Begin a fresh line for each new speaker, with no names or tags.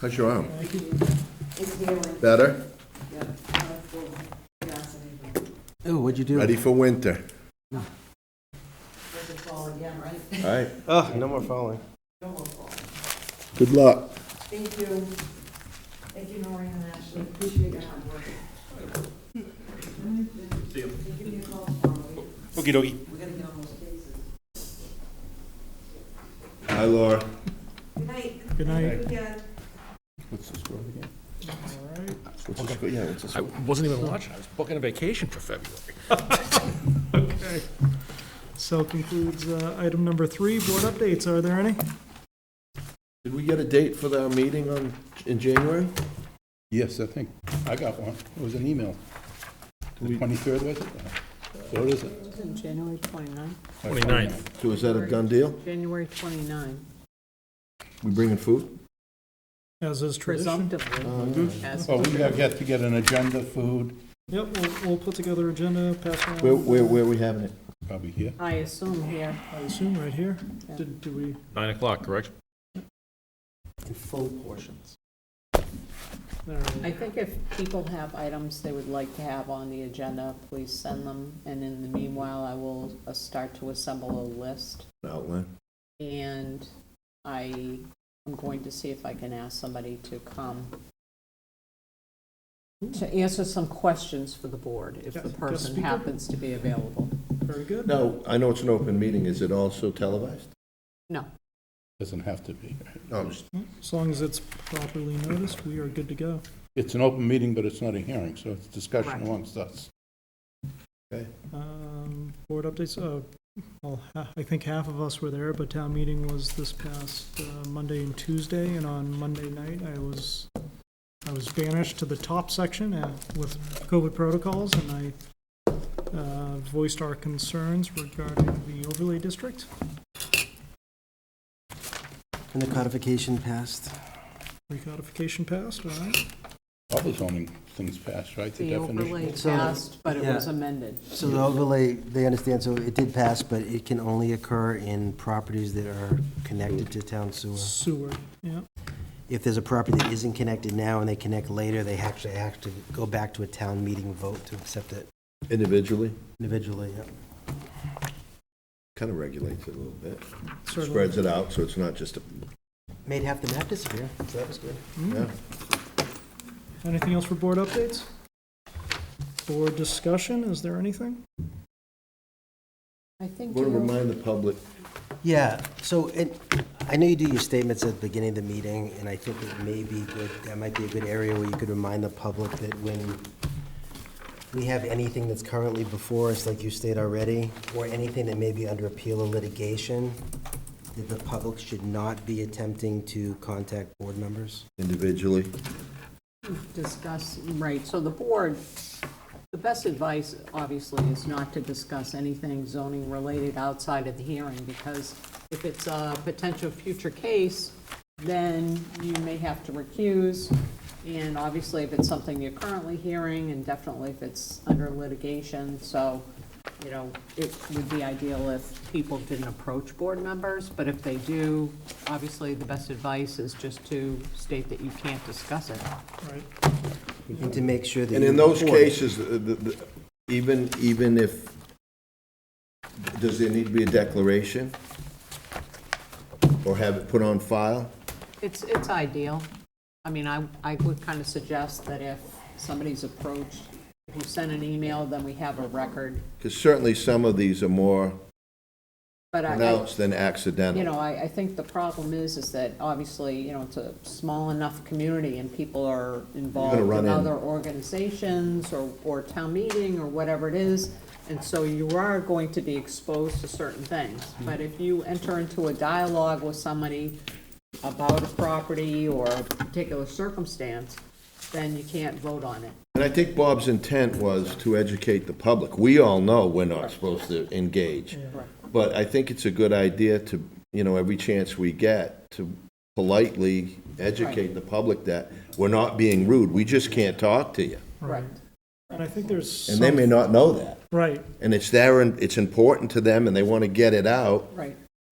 How's your arm?
It's healing,
Better?
yeah. I have full vaccinated.
Ooh, what'd you do?
Ready for winter?
This is fall again, right?
All right.
Oh, no more falling.
No more fall.
Good luck.
Thank you. Thank you, Noreen and Ashley. Appreciate your hard work. See you. Give me a call tomorrow. We-
Okey dokey.
We gotta get on those cases.
Hi, Laura.
Good night.
Good
Have a
night.
good weekend.
What's the score again?
All right.
What's the score? Yeah, what's the
I
score?
wasn't even watching, I was booking a vacation for February.
Okay. So concludes uh, item number three, board updates. Are there any?
Did we get a date for the meeting on, in January?
Yes, I think. I got one. It was an email. The 23rd, was it? What is it?
It's in January 29,
Twenty-ninth.
So is that a done deal?
January 29,
We bringing food?
As is tradition.
presumptively. as
Well, we have yet to get an agenda, food,
Yep, we'll, we'll put together agenda, pass around.
Where, where, where we having it?
probably here.
I assume here.
I assume right here.
Yeah.
Did, do we,
Nine o'clock, correct?
Full portions.
there,
I think if people have items they would like to have on the agenda, please send them. And in the meanwhile, I will uh, start to assemble a list.
Outline.
And I am going to see if I can ask somebody to come to answer some questions for the board, if
Yeah,
the
guest
person
speaker?
happens to be available.
very good.
Now, I know it's an open meeting. Is it also televised?
No,
Doesn't have to be.
No, I'm just,
As long as it's properly noticed, we are good to go.
It's an open meeting, but it's not a hearing, so it's discussion
Correct.
amongst us.
Um, Board updates, uh, well, ha- I think half of us were there, but town meeting was this past uh, Monday and Tuesday, and on Monday night, I was, I was banished to the top section uh, with COVID protocols, and I uh, voiced our concerns regarding the overlay district.
And the codification passed.
Recodification passed, all right?
All the zoning things passed, right? The
the
definition.
overlay
So-
passed, but it
yeah.
was amended.
So the overlay, they understand, so it did pass, but it can only occur in properties that are connected to town sewer.
Sewer, yeah.
If there's a property that isn't connected now and they connect later, they actually have to go back to a town meeting vote to accept it
individually,
individually, yeah.
kind of regulates it a little bit.
certainly.
Spreads it out, so it's not just a,
Made half the map disappear, so that was good.
yeah.
Anything else for board updates? Board discussion, is there anything?
I think
Want to
you're-
remind the public,
Yeah, so it, I know you do your statements at the beginning of the meeting, and I think it may be good, that might be a good area where you could remind the public that when we have anything that's currently before us, like you stated already, or anything that may be under appeal or litigation, that the public should not be attempting to contact board members.
individually.
discuss, right, so the board, the best advice, obviously, is not to discuss anything zoning related outside of the hearing, because if it's a potential future case, then you may have to recuse, and obviously, if it's something you're currently hearing, and definitely if it's under litigation, so, you know, it would be ideal if people didn't approach board members, but if they do, obviously, the best advice is just to state that you can't discuss it.
Right.
We need to make sure that.
And in
you
those
record it.
cases, the- the- the- even, even if, does there need to be a declaration? Or have it put on file?
It's, it's ideal. I mean, I, I would kind of suggest that if somebody's approached, if you send an email, then we have a record.
Because certainly some of these are more
But I,
pronounced than
you
accidental.
know, I, I think the problem is, is that obviously, you know, it's a small enough community and people are involved
run
in
in-
other organizations or, or town meeting or whatever it is. And so you are going to be exposed to certain things. But if you enter into a dialogue with somebody about a property or a particular circumstance, then you can't vote on it.
And I think Bob's intent was to educate the public. We all know we're not supposed to engage. But I think it's a good idea to, you know, every chance we get, to politely educate the public that we're not being rude, we just can't talk to you.
Correct.
And I think there's.
And they may
some-
not know that.
Right,
and it's there and it's important to them and they want to get it out,
Right.